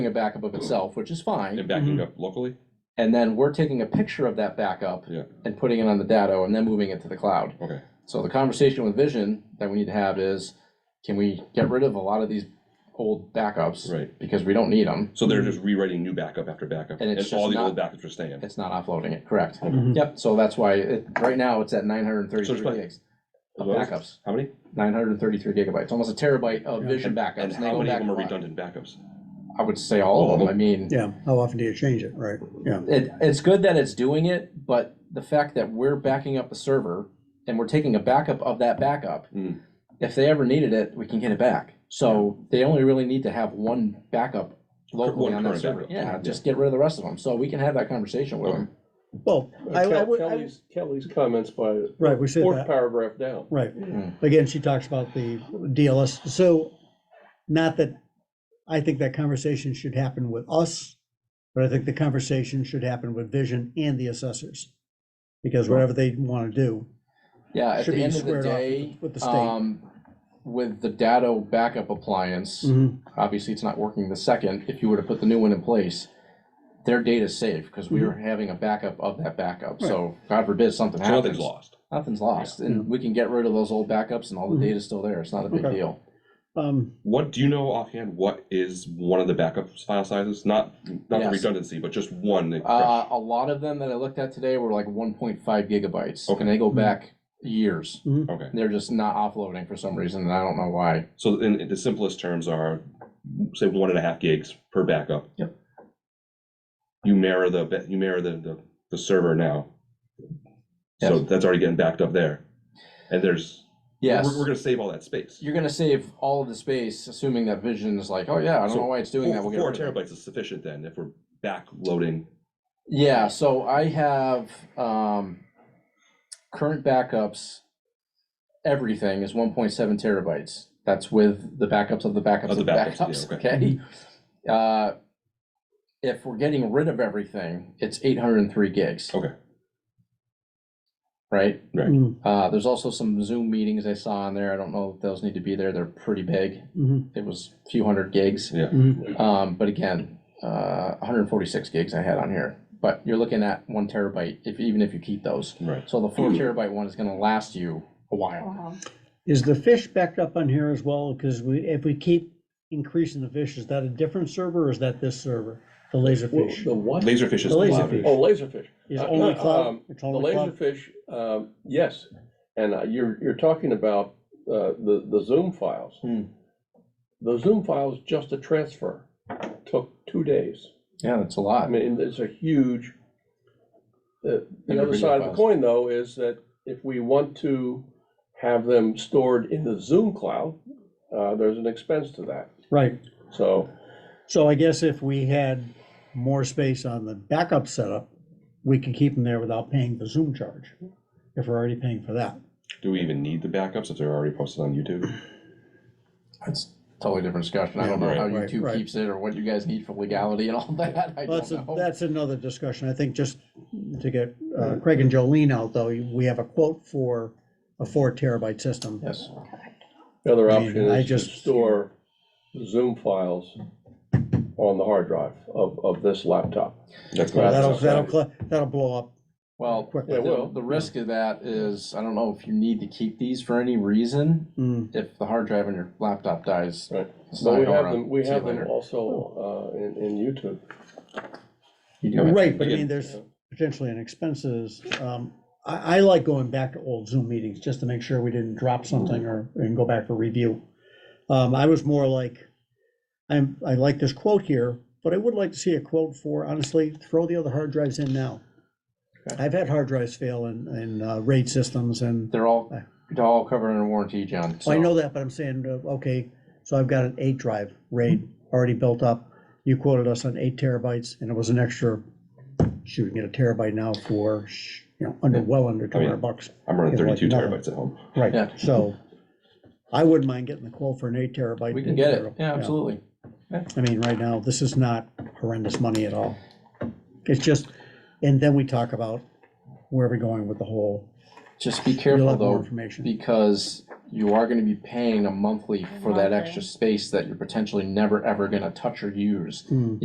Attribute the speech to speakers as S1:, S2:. S1: a backup of itself, which is
S2: And
S1: fine.
S2: backing up locally?
S1: And then we're taking a picture of that backup
S2: Yeah,
S1: and putting it on the data and then moving it to the cloud.
S2: okay.
S1: So the conversation with Vision that we need to have is, can we get rid of a lot of these old backups?
S2: Right.
S1: Because we don't need them.
S2: So they're just rewriting new backup after backup,
S1: And
S2: and
S1: it's
S2: all
S1: just
S2: the
S1: not-
S2: old backups are staying.
S1: It's not offloading it, correct?
S3: Mhm.
S1: Yep, so that's why, it, right now, it's at nine hundred and
S2: Mm-hmm. So it's
S1: thirty-three
S2: like-
S1: gigs of
S2: Well,
S1: backups,
S2: How many?
S1: nine hundred and thirty-three gigabytes, almost a terabyte of
S3: Yeah.
S1: Vision
S2: And
S1: backups. and they
S2: how
S1: go
S2: many of
S1: back
S2: them
S1: a
S2: are
S1: lot.
S2: redundant backups?
S1: I would say all of them, I mean.
S3: Yeah, how often do you change it, right? Yeah,
S1: it, it's good that it's doing it, but the fact that we're backing up a server and we're taking a backup of that backup,
S2: Mm.
S1: if they ever needed it, we can get it back. So they only really need to have one backup locally
S2: One
S1: on that
S2: current
S1: server.
S2: backup.
S1: Yeah,
S2: Yeah.
S1: just get rid of the rest of them. So we can have that conversation with them.
S3: well, I, I
S4: Kel-
S3: would, I-
S4: Kelly's, Kelly's comments by
S3: right, we said
S4: fourth
S3: that,
S4: paragraph down.
S3: right.
S1: Mm.
S3: Again, she talks about the DLS, so, not that, I think that conversation should happen with us, but I think the conversation should happen with Vision and the assessors. Because whatever they want to do,
S1: Yeah, at
S3: Should
S1: the
S3: be
S1: end of the
S3: squared off with
S1: day,
S3: the- with the state.
S1: um, with the Datto backup appliance,
S3: Mhm,
S1: obviously it's not working the second, if you were to put the new one in place, their data's safe, because
S3: Mm-hmm.
S1: we are having a backup of that backup, so God forbid something
S2: So nothing's
S1: happens.
S2: lost.
S1: Nothing's lost,
S3: Yeah.
S1: and we can get rid of those old backups and all the
S3: Mhm.
S1: data's still there, it's not a big
S3: Okay.
S1: deal.
S3: um,
S2: What, do you know offhand, what is one of the backup file sizes? Not, not the
S1: Yes.
S2: redundancy, but just one. that-
S1: Uh, a lot of them that I looked at today were like one point five gigabytes,
S2: Okay.
S1: and they go
S3: Mhm.
S1: back years.
S3: Mm-hmm.
S2: Okay,
S1: They're just not offloading for some reason, and I don't know why.
S2: so in, in the simplest terms are, say, one and a half gigs per backup.
S1: Yep.
S2: You mirror the, ba- you mirror the, the, the server now. So
S1: Yes.
S2: that's already getting backed up there. And there's, we're,
S1: Yes,
S2: we're gonna save all that space.
S1: you're gonna save all of the space, assuming that Vision is like, oh yeah, I don't
S2: So
S1: know why it's doing that, we'll
S2: Four
S1: get
S2: four
S1: rid of it.
S2: terabytes is sufficient then, if we're backloading.
S1: Yeah, so I have, um, current backups, everything is one point seven terabytes. That's with the backups of the backups
S2: Of the
S1: of the
S2: backups, yeah,
S1: backups,
S2: okay. Mm-hmm.
S1: okay? Uh, if we're getting rid of everything, it's eight hundred and three gigs,
S2: Okay,
S1: right?
S3: mhm,
S1: Uh, there's also some Zoom meetings I saw on there. I don't know if those need to be there. They're pretty big.
S3: mhm,
S1: It was a few hundred gigs.
S2: yeah.
S3: mhm.
S1: Um, but again, uh, one hundred forty-six gigs I had on here. But you're looking at one terabyte if even if you keep those.
S2: Right.
S1: So the four
S4: Hmm.
S1: terabyte one is gonna last you a while.
S5: Wow.
S3: Is the fish backed up on here as well? Because we, if we keep increasing the fish, is that a different server or is that this server, the laser fish?
S4: The what?
S2: Laserfish is
S3: The
S2: louder.
S3: Laserfish.
S4: Oh, laserfish.
S3: Is
S4: Uh,
S3: only
S4: no,
S3: cloud,
S4: um,
S3: it's
S4: The
S3: only cloud?
S4: laserfish, um, yes, and uh, you're, you're talking about, uh, the, the Zoom files.
S1: Hmm.
S4: The Zoom files, just a transfer, took two days.
S1: Yeah, that's a
S4: I
S1: lot.
S4: mean, it's a huge, uh, the,
S1: And
S4: the other
S1: video
S4: side of the
S1: files.
S4: coin though is that if we want to have them stored in the Zoom cloud, uh, there's an expense to that.
S3: Right,
S4: So,
S3: so I guess if we had more space on the backup setup, we could keep them there without paying the Zoom charge, if we're already paying for that.
S2: Do we even need the backups if they're already posted on YouTube?
S1: That's a totally different discussion. I don't know
S2: Yeah,
S1: how
S3: right,
S1: YouTube
S3: right.
S1: keeps it or what you guys need for legality and all that. I
S3: Well, that's,
S1: don't
S3: a-
S1: know.
S3: that's another discussion, I think just to get uh, Craig and Jolene out, though, we have a quote for a four terabyte system.
S1: Yes.
S4: the other
S3: I mean,
S4: option
S3: I
S4: is to
S3: just-
S4: store the Zoom files on the hard drive of, of this laptop.
S2: That's
S4: Well,
S2: gonna-
S3: That'll, that'll, cl- that'll blow up
S1: Well,
S3: quickly.
S4: Yeah,
S1: the-
S4: well,
S1: the risk of that is, I don't know if you need to keep these for any reason.
S3: Mm,
S1: If the hard drive on your laptop dies.
S4: Right.
S1: it's
S4: But
S1: not
S4: we
S1: going
S4: have
S1: up.
S4: them, we
S1: See you
S4: have them
S1: later.
S4: also, uh, in, in YouTube.
S1: You do it.
S3: Right, but I
S2: Again,
S3: mean, there's potentially an expenses, um, I, I like going back to old Zoom meetings, just to make sure we didn't drop something or, and go back for review. Um, I was more like, I'm, I like this quote here, but I would like to see a quote for, honestly, throw the other hard drives in now.
S1: Okay.
S3: I've had hard drives fail in, in uh, RAID systems and,
S1: They're all, they're all covered under warranty, John.
S3: I
S1: so-
S3: know that, but I'm saying, uh, okay, so I've got an eight drive RAID already built up. You quoted us on eight terabytes and it was an extra, shoot, we can get a terabyte now for, sh- you know, under, well under two
S2: I mean,
S3: hundred bucks.
S2: I'm running
S3: Yeah, like
S2: thirty-two
S3: nothing.
S2: terabytes at home.
S3: Right,
S1: Oh, Yeah.
S3: so I wouldn't mind getting the quote for an eight terabyte.
S1: We can get it. Yeah, absolutely.
S3: I mean, right now, this is not horrendous money at all. It's just, and then we talk about where we're going with the whole,
S1: Just be
S3: you'll
S1: careful
S3: have more
S1: though,
S3: information.
S1: because you are gonna be paying a monthly for that
S5: Monthly.
S1: extra space that you're potentially never, ever gonna touch or use.
S3: Hmm.